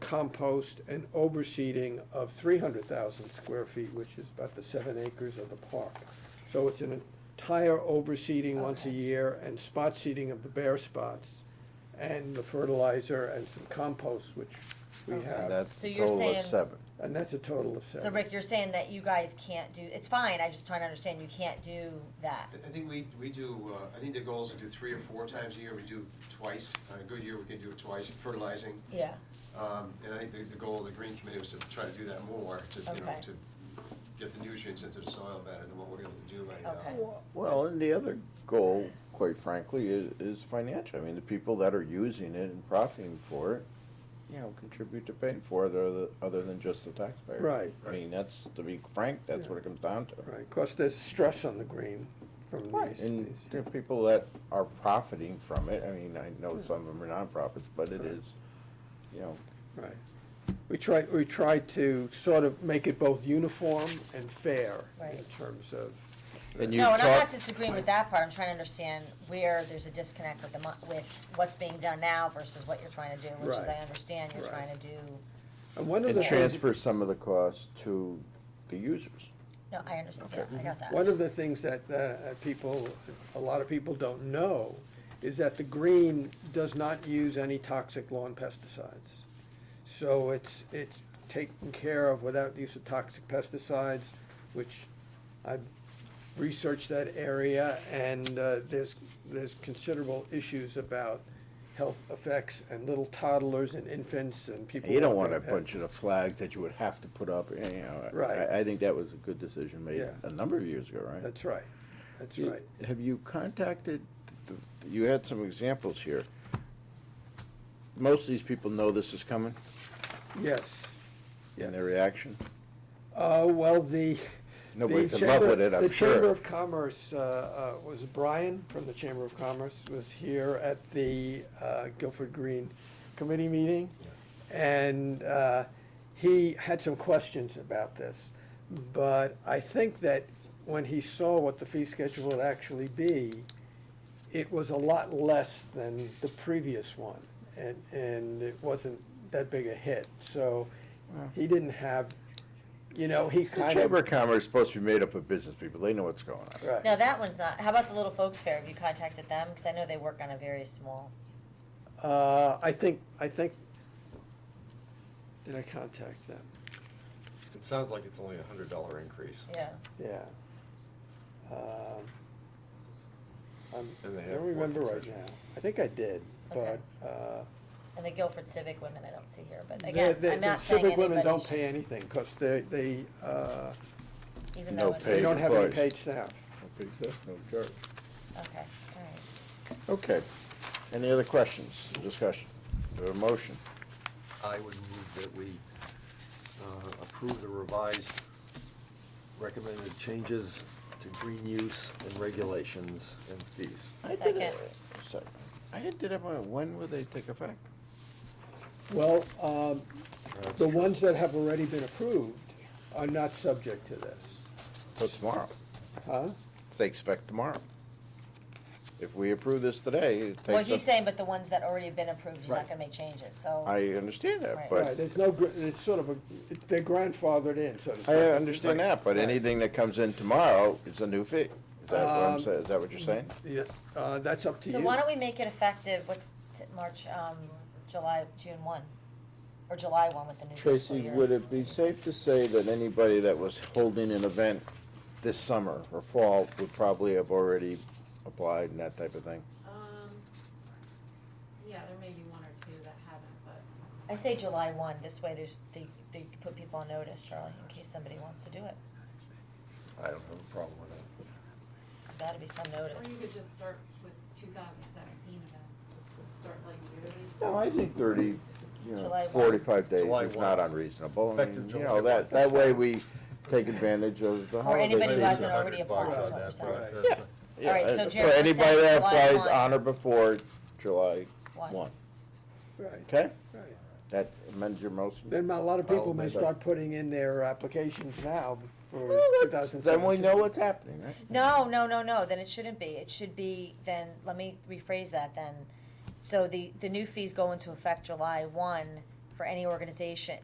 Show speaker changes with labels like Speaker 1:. Speaker 1: compost and overseeding of three hundred thousand square feet, which is about the seven acres of the park. So it's an entire overseeding once a
Speaker 2: Okay.
Speaker 1: year and spot seeding of the bare spots and the fertilizer and some compost, which we
Speaker 2: Okay.
Speaker 1: have.
Speaker 3: And that's
Speaker 2: So
Speaker 3: a
Speaker 2: you're
Speaker 3: total
Speaker 2: saying-
Speaker 3: of seven.
Speaker 1: And that's a total of seven.
Speaker 2: So Rick, you're saying that you guys can't do, it's fine, I just trying to understand, you can't do that.
Speaker 4: I- I think we, we do, uh, I think the goal is to do three or four times a year, we do twice, on a good year, we can do it twice, fertilizing.
Speaker 2: Yeah,
Speaker 4: Um, and I think the, the goal of the green committee was to try to do that more, to, you know,
Speaker 2: Okay.
Speaker 4: to get the nutrients into the soil better than what we're able to do right
Speaker 2: Okay.
Speaker 4: now.
Speaker 3: Well, and the other goal, quite frankly, is, is financial. I mean, the people that are using it and profiting for it, you know, contribute to paying for it other, other than just the taxpayer.
Speaker 1: Right.
Speaker 3: I mean, that's, to be frank, that's what it comes down to.
Speaker 1: Right, 'cause there's stress on the green from these.
Speaker 3: And
Speaker 1: these-
Speaker 3: there are people that are profiting from it. I mean, I know some of them are nonprofits, but it is, you know,
Speaker 1: Right. We try, we try to sort of make it both uniform and fair in
Speaker 2: Right.
Speaker 1: terms of,
Speaker 3: and you
Speaker 2: no, and I'm
Speaker 3: talk,
Speaker 2: not disagreeing with that part, I'm trying to understand where there's a disconnect with the mon- with what's being done now versus what you're trying to do, which is, I
Speaker 1: Right.
Speaker 2: understand you're
Speaker 1: Right.
Speaker 2: trying to do,
Speaker 1: and one of
Speaker 3: and
Speaker 1: the things,
Speaker 3: transfer some of the costs to the users.
Speaker 2: no, I understand, yeah, I got that.
Speaker 1: one of the things that, that people, a lot of people don't know is that the green does not use any toxic lawn pesticides. So it's, it's taken care of without use of toxic pesticides, which I've researched that area, and uh, there's, there's considerable issues about health effects and little toddlers and infants and people.
Speaker 3: You don't
Speaker 1: with
Speaker 3: want a
Speaker 1: their
Speaker 3: bunch of the
Speaker 1: pets.
Speaker 3: flags that you would have to put up, you know.
Speaker 1: Right.
Speaker 3: I, I think that was a good decision made
Speaker 1: Yeah.
Speaker 3: a number of years ago, right?
Speaker 1: That's right, that's
Speaker 3: You-
Speaker 1: right.
Speaker 3: Have you contacted, the- you had some examples here. Most of these people know this is coming
Speaker 1: Yes.
Speaker 3: and
Speaker 1: Yes.
Speaker 3: their reaction.
Speaker 1: Uh, well, the.
Speaker 3: Nobody's
Speaker 1: the
Speaker 3: in love
Speaker 1: Chamber-
Speaker 3: with it, I'm
Speaker 1: The Chamber
Speaker 3: sure.
Speaker 1: of Commerce, uh, uh, was Brian from the Chamber of Commerce was here at the, uh, Guilford Green Committee meeting. And, uh, he had some questions about this. But I think that when he saw what the fee schedule would actually be, it was a lot less than the previous one, and, and it wasn't that big a hit, so he didn't have, you know, he
Speaker 3: The
Speaker 1: kind of.
Speaker 3: Chamber of Commerce is supposed to be made up of business people, they know what's going on.
Speaker 1: Right.
Speaker 2: No, that one's not, how about the Little Folks Fair, have you contacted them? Cause I know they work on a very small,
Speaker 1: Uh, I think, I think, did I contact them?
Speaker 5: It sounds like it's only a hundred dollar increase.
Speaker 2: yeah,
Speaker 1: Yeah. Um, I'm, I
Speaker 5: And they have
Speaker 1: don't remember
Speaker 5: work
Speaker 1: right now.
Speaker 5: sessions.
Speaker 1: I think I did, but,
Speaker 2: Okay.
Speaker 1: uh.
Speaker 2: and the Guilford Civic Women I don't see here, but
Speaker 1: the-
Speaker 2: again,
Speaker 1: the-
Speaker 2: I'm
Speaker 1: the
Speaker 2: not saying
Speaker 1: Civic women
Speaker 2: anybody
Speaker 1: don't
Speaker 2: should,
Speaker 1: pay anything, cause they, they, uh,
Speaker 2: even
Speaker 3: No
Speaker 2: though it's, okay,
Speaker 1: they
Speaker 3: Paid
Speaker 1: don't have any
Speaker 3: employees.
Speaker 1: paid staff.
Speaker 3: Okay, so no charge.
Speaker 2: alright.
Speaker 3: Okay, any other questions, discussion, or a motion?
Speaker 5: I would move that we uh, approve the revised recommended changes to green use and regulations and fees.
Speaker 3: I did
Speaker 2: Second.
Speaker 3: it- so- I did it, but when will they take effect?
Speaker 1: Well, um,
Speaker 5: That's
Speaker 1: the
Speaker 5: true.
Speaker 1: ones that have already been approved are not subject to this,
Speaker 3: So Oh, tomorrow.
Speaker 1: huh?
Speaker 3: They expect tomorrow. If we approve this today, it takes.
Speaker 2: Well, he's
Speaker 3: us-
Speaker 2: saying, but the ones that already have been approved, he's not
Speaker 1: Right.
Speaker 2: gonna make changes, so.
Speaker 3: I understand that,
Speaker 2: Right.
Speaker 1: Right,
Speaker 3: but,
Speaker 1: there's no, gr- there's sort of a, they're grandfathered in, so to speak.
Speaker 3: I understand that, but
Speaker 1: Right.
Speaker 3: anything that comes in tomorrow is a new fee. Is that what I'm
Speaker 1: Um,
Speaker 3: saying, is that what you're saying?
Speaker 1: Yeah, uh, that's up to you.
Speaker 2: So why don't we make it effective, what's t- March, um, July, June one, or July one with the new fiscal
Speaker 3: Tracy,
Speaker 2: year?
Speaker 3: would it be safe to say that anybody that was holding an event this summer or fall would probably have already applied and that type of thing?
Speaker 6: Um, yeah, there may be one or two that haven't, but
Speaker 2: I say July one, this way there's, they, they can put people on notice, Charlie, in case somebody wants to do it,
Speaker 5: I don't have a problem with that.
Speaker 2: there's gotta be some
Speaker 6: or you
Speaker 2: notice.
Speaker 6: could just start with two thousand seventeen events, start like yearly.
Speaker 3: No, I think thirty, you
Speaker 2: July
Speaker 3: know,
Speaker 2: one.
Speaker 3: forty-five days
Speaker 5: July
Speaker 3: is not
Speaker 5: one.
Speaker 3: unreasonable. I
Speaker 5: Effective
Speaker 3: mean, you
Speaker 5: July
Speaker 3: know,
Speaker 5: one.
Speaker 3: that, that way we take advantage of the
Speaker 2: Or
Speaker 3: holiday season.
Speaker 2: anybody who hasn't
Speaker 5: $100
Speaker 2: already applied,
Speaker 5: bucks
Speaker 2: is
Speaker 5: on
Speaker 2: what we're
Speaker 5: that
Speaker 2: saying.
Speaker 5: process.
Speaker 3: Yeah.
Speaker 2: Yeah, All right, so
Speaker 3: uh,
Speaker 2: Jared was
Speaker 3: For
Speaker 2: saying
Speaker 3: anybody that
Speaker 2: July
Speaker 3: applies
Speaker 2: one.
Speaker 3: on or before July
Speaker 2: One.
Speaker 3: one,
Speaker 1: Right,
Speaker 3: okay?
Speaker 1: right.
Speaker 3: That amends your motion.
Speaker 1: Then a lot of people
Speaker 5: I'll
Speaker 1: may
Speaker 3: make that.
Speaker 1: start putting in their applications now for two thousand
Speaker 3: Then
Speaker 1: seventeen.
Speaker 3: we know what's happening, right?
Speaker 2: No, no, no, no, then it shouldn't be, it should be, then, let me rephrase that then. So the, the new fees go into effect July one for any organization,